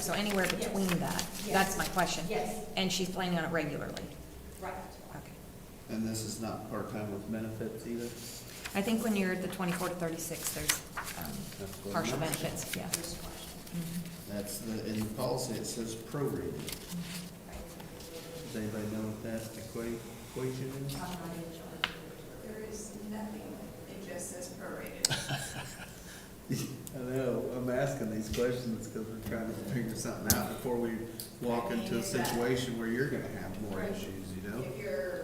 so anywhere between that, that's my question. Yes. And she's planning on it regularly? Right. Okay. And this is not part-time with benefits either? I think when you're at the twenty-four to thirty-six, there's um, That's what partial I'm- benefits, yeah. Mhm. That's the, in the policy, it says prorated. Does anybody know what that equa- equation is? Mm-hmm. There is nothing, it just says prorated. I know, I'm asking these questions because we're trying to figure something out before we walk into a situation where you're gonna have more issues, you know? If you're,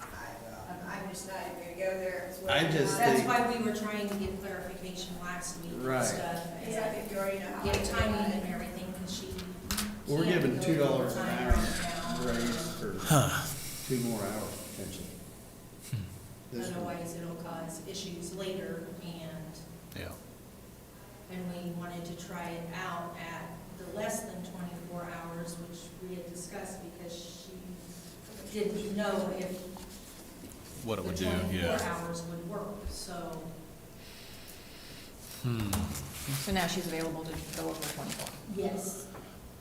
I, um, I'm just not even gonna go there. It's what- I just That's think- why we were trying to get clarification last week Right. and stuff. It's like if you already know how. Get to do timing it. and everything, because she. We're can't giving go two dollars an hour full-time right now. raise for two more hours potentially. Hmm. This one. Otherwise, it'll cause issues later, and, Yeah. and we wanted to try it out at the less than twenty-four hours, which we had discussed, because she didn't know if What the it would do, twenty-four yeah. hours would work, so. Hmm. So now she's available to go over twenty-four. Yes,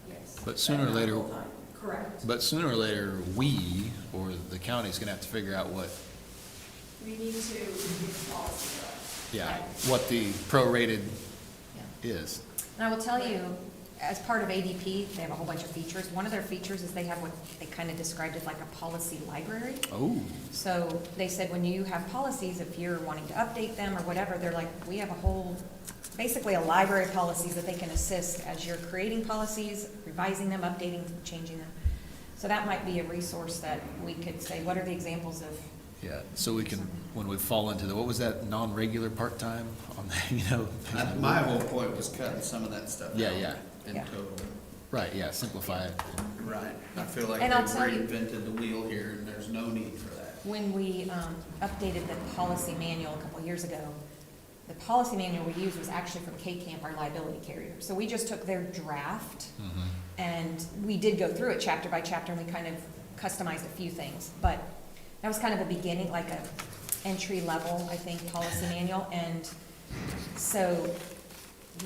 yes. But sooner or later, Correct. but sooner or later, we, or the county's gonna have to figure out what, We need to review the policy. yeah, what the prorated Yeah. is. And I will tell you, as part of ADP, they have a whole bunch of features. One of their features is they have what they kind of described as like a policy library. Oh, So they said when you have policies, if you're wanting to update them or whatever, they're like, we have a whole, basically a library of policies that they can assist as you're creating policies, revising them, updating, changing them. So that might be a resource that we could say, what are the examples of, yeah, so we can, when we fall into the, what was that, non-regular part-time on, the you know? I- My whole point was cutting some of that stuff out. Yeah, yeah. In Yeah. total. Right, yeah, simplify it. Right. I feel like And I'll they've tell you- reinvented the wheel here and there's no need for that. when we um, updated the policy manual a couple of years ago, the policy manual we used was actually from K-Camp, our liability carrier. So we just took their draft Mhm. And we did go through it chapter by chapter, and we kind of customized a few things, but that was kind of a beginning, like a entry level, I think, policy manual, and so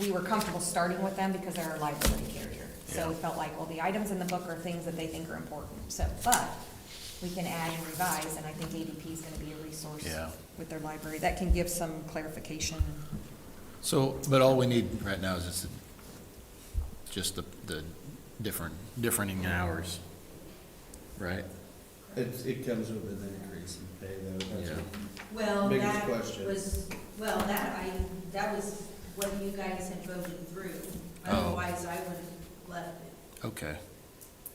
we were comfortable starting with them because they're our liability carrier. So we Yeah. felt like, well, the items in the book are things that they think are important, so, but we can add and revise, and I think ADP is gonna be a resource Yeah. with their library, that can give some clarification. So, but all we need right now is just, just the, the different, differing hours, right? It, it comes with an increase in pay though. that's Yeah. what- Well, Biggest that question. was, well, that I, that was what you guys had voted through. Oh. Otherwise, I would have left it. Okay,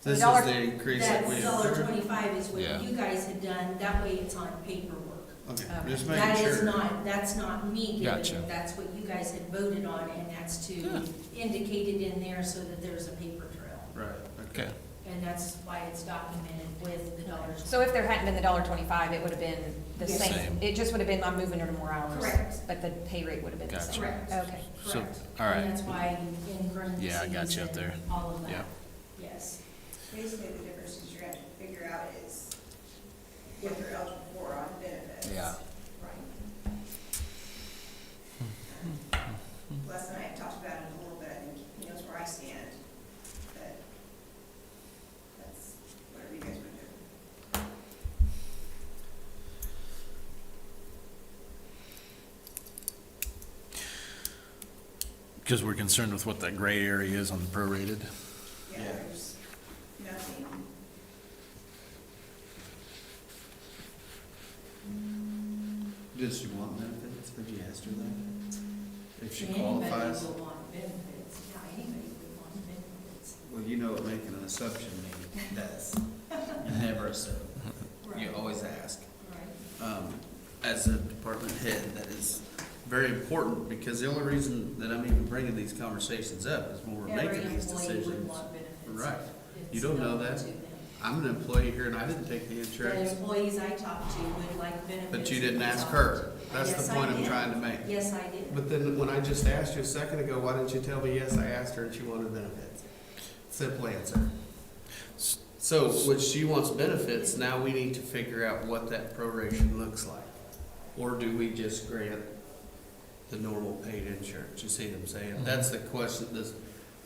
This is dollar- the increase that That we. dollar twenty-five is what Yeah. you guys had done. That way it's on paperwork. Um, Okay, Okay. just making That sure. is not, that's not me giving Gotcha. it. That's what you guys had voted on, and that's to Yeah. indicate it in there so that there's a paper trail. Right, okay. okay. And that's why it's documented with the dollars. So if there hadn't been the dollar twenty-five, it would have been the Yes. same, Same. it just would have been, I'm moving her to more hours. Correct. But the pay rate would have been the Gotcha. same. Correct. Okay. So, Correct. all right. And that's why in parentheses. Yeah, I got you up there. and All of Yeah. that, yes. Basically, the difference is you're gonna have to figure out is what they're eligible for on benefits. Yeah. Right. Les and I have talked about it a little bit, and he knows where I stand, but that's whatever you guys want to do. Because we're concerned with what that gray area is on the prorated. Yeah, Yeah. there's nothing. Does she want benefits? Have you asked her that? If she qualifies? Anybody would want benefits, yeah, anybody would want benefits. Well, you know what making an assumption means, does. You never assume. You Right, always ask. Right, Um, as a department head, that is very important because the only reason that I'm even bringing these conversations up is when we're every making these employee would decisions. want benefits. Right. You It's don't know known that. to them. I'm an employee here and I didn't take the The insurance, employees I talked to would like benefits. but you didn't because ask of- her. That's Yes, the I point I'm did. trying to make. Yes, I did. But then when I just asked you a second ago, why didn't you tell me, yes, I asked her and she wanted benefits? Simple answer. So, when she wants benefits, now we need to figure out what that proration looks like. Or do we just grant the normal paid insurance? You see what I'm saying? That's the question, this,